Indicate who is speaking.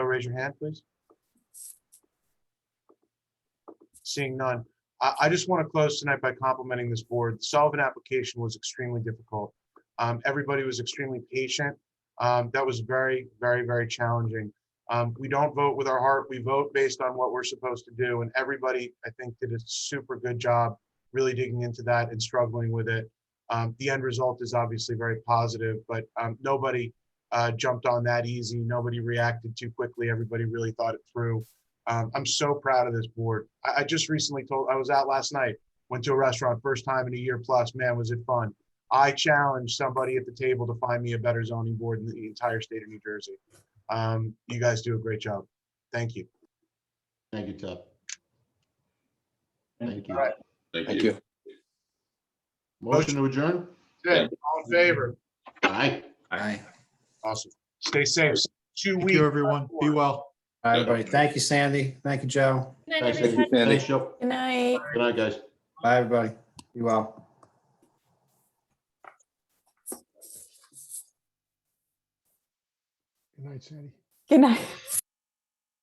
Speaker 1: raise your hand, please? Seeing none. I, I just want to close tonight by complimenting this board. The Sullivan application was extremely difficult. Um, Everybody was extremely patient. Um, That was very, very, very challenging. Um, We don't vote with our heart. We vote based on what we're supposed to do. And everybody, I think, did a super good job really digging into that and struggling with it. Um, The end result is obviously very positive, but um, nobody uh, jumped on that easy. Nobody reacted too quickly. Everybody really thought it through. Um, I'm so proud of this board. I, I just recently told, I was out last night, went to a restaurant, first time in a year plus. Man, was it fun. I challenged somebody at the table to find me a better zoning board in the entire state of New Jersey. Um, you guys do a great job. Thank you.
Speaker 2: Thank you, Tuck. Thank you.
Speaker 1: All right.
Speaker 3: Thank you.
Speaker 2: Motion to adjourn?
Speaker 1: Good. All in favor?
Speaker 2: Aye.
Speaker 3: Aye.
Speaker 1: Awesome. Stay safe. Two
Speaker 4: Thank
Speaker 1: weeks.
Speaker 4: you, everyone. Be well.
Speaker 5: All right, buddy. Thank you, Sandy. Thank you, Joe.
Speaker 6: Good night,
Speaker 2: Thanks,
Speaker 6: everybody.
Speaker 2: Sandy.
Speaker 3: Sandy.
Speaker 2: Thanks, Joe.
Speaker 6: Good night.
Speaker 2: Good night, guys.
Speaker 5: Bye, everybody. Be well.
Speaker 4: Good night, Sandy.
Speaker 6: Good night.